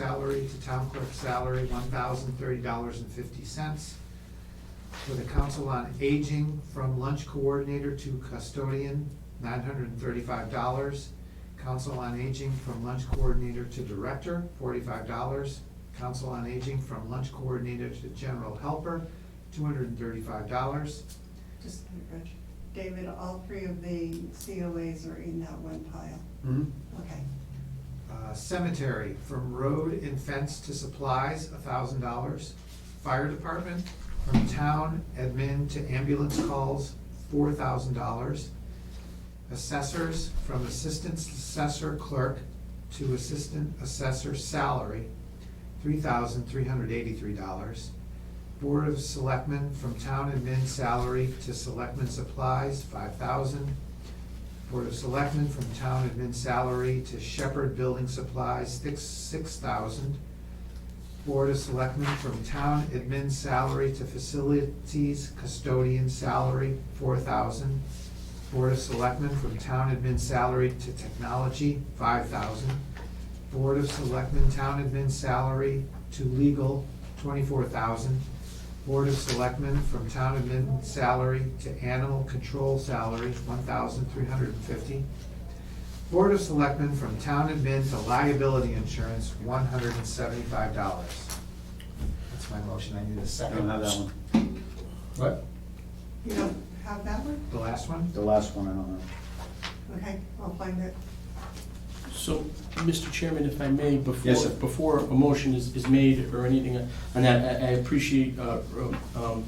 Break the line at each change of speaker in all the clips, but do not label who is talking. salary to town clerk salary, one thousand thirty dollars and fifty cents. For the council on aging, from lunch coordinator to custodian, nine hundred and thirty-five dollars. Council on Aging from lunch coordinator to director, forty-five dollars. Council on Aging from lunch coordinator to general helper, two hundred and thirty-five dollars.
Just, a minute, Rich. David, all three of the COAs are in that one pile. Okay.
Uh, Cemetery, from road and fence to supplies, thousand dollars. Fire department, from town admin to ambulance calls, four thousand dollars. Assessors, from assistant assessor clerk to assistant assessor salary, three thousand three hundred eighty-three dollars. Board of selectmen, from town admin salary to selectmen supplies, five thousand dollars Board of Selectmen from town admin salary to Shepherd Building Supplies, six, six thousand. Board of Selectmen from town admin salary to facilities custodian salary, four thousand. Board of Selectmen from town admin salary to technology, five thousand. Board of Selectmen town admin salary to legal, twenty-four thousand. Board of Selectmen from town admin salary to animal control salary, one thousand three hundred and fifty. Board of Selectmen from town admin to liability insurance, one hundred and seventy-five dollars. That's my motion, I need a
I
second.
don't have that one.
What?
You don't have that one?
The last one?
The last one, I don't know.
Okay, I'll find it.
So, Mr. Chairman, if I may,
Yes, sir.
before, before a motion is, is made or anything on that, I, I appreciate, uh, um,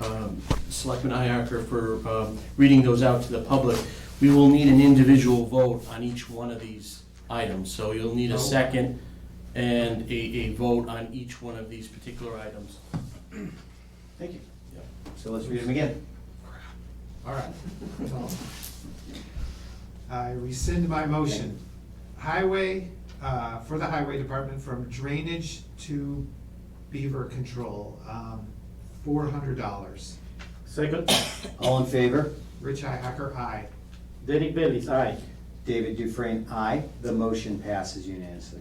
um, Selectman Iacker for, um, reading those out to the public. We will need an individual vote on each one of these items, so you'll need a second and a, a vote on each one of these particular items.
Thank you.
Yeah.
So let's read them again.
All right. I rescind my motion. Highway, uh, for the highway department from drainage to beaver control, um, four hundred dollars.
Second,
All in favor?
Rich Hacker, aye.
Derek Bellis, aye.
David Dufresne, aye. The motion passes unanimously.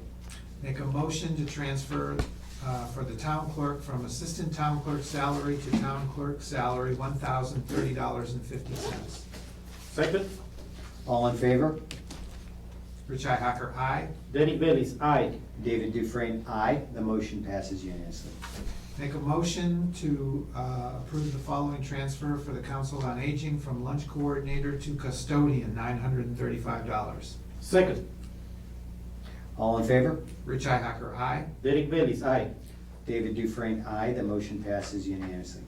Make a motion to transfer, uh, for the town clerk from assistant town clerk salary to town clerk salary, one thousand thirty dollars and fifty cents.
Second,
All in favor?
Rich Hacker, aye.
Derek Bellis, aye.
David Dufresne, aye. The motion passes unanimously.
Make a motion to uh, approve the following transfer for the Council on Aging from lunch coordinator to custodian, nine hundred and thirty-five dollars.
Second,
All in favor?
Rich Ihacker, aye.
Derek Bellis, aye.
David Dufresne, aye. The motion passes unanimously.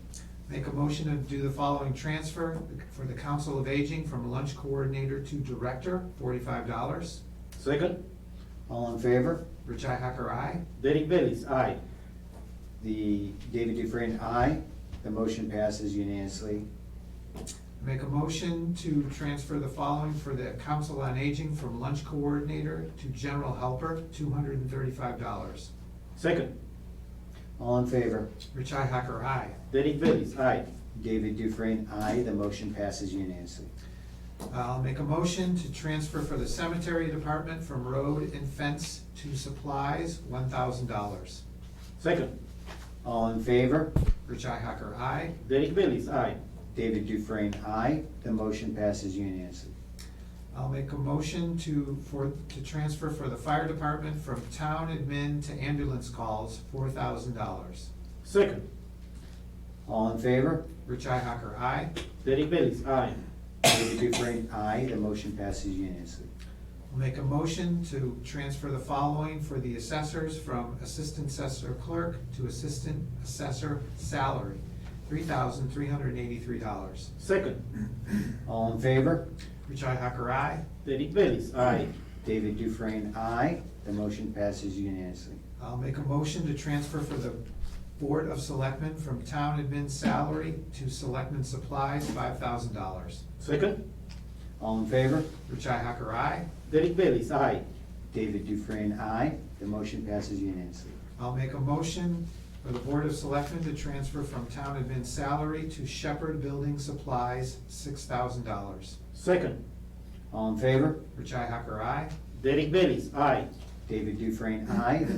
Make a motion to do the following transfer for the Council of Aging from lunch coordinator to director, forty-five dollars.
Second,
All in favor?
Rich Ihacker, aye.
Derek Bellis, aye.
The, David Dufresne, aye. The motion passes unanimously.
Make a motion to transfer the following for the Council on Aging from lunch coordinator to general helper, two hundred and thirty-five dollars.
Second,
All in favor?
Rich Ihacker, aye.
Derek Bellis, aye.
David Dufresne, aye. The motion passes unanimously.
I'll make a motion to transfer for the cemetery department from road and fence to supplies, one thousand dollars.
Second,
All in favor?
Rich Hacker, aye.
Derek Bellis, aye.
David Dufresne, aye. The motion passes unanimously.
I'll make a motion to, for, to transfer for the fire department from town admin to ambulance calls, four thousand dollars.
Second,
All in favor?
Rich Hacker, aye.
Derek Bellis, aye.
David Dufresne, aye. The motion passes unanimously.
I'll make a motion to transfer the following for the assessors from assistant assessor clerk to assistant assessor salary, three thousand three hundred eighty-three dollars.
Second,
All in favor?
Rich Hacker, aye.
Derek Bellis, aye.
David Dufresne, aye. The motion passes unanimously.
I'll make a motion to transfer for the Board of Selectmen from town admin salary to selectmen supplies, five thousand dollars.
Second,
All in favor?
Richi Hacker, aye.
Derek Bellis, aye.
David Dufresne, aye. The motion passes unanimously.
I'll make a motion for the Board of Selectmen to transfer from town admin salary to Shepherd Building Supplies, six thousand dollars.
Second,
All in favor?
Richi Hacker, aye.
Derek Bellis, aye.
David Dufresne, aye. The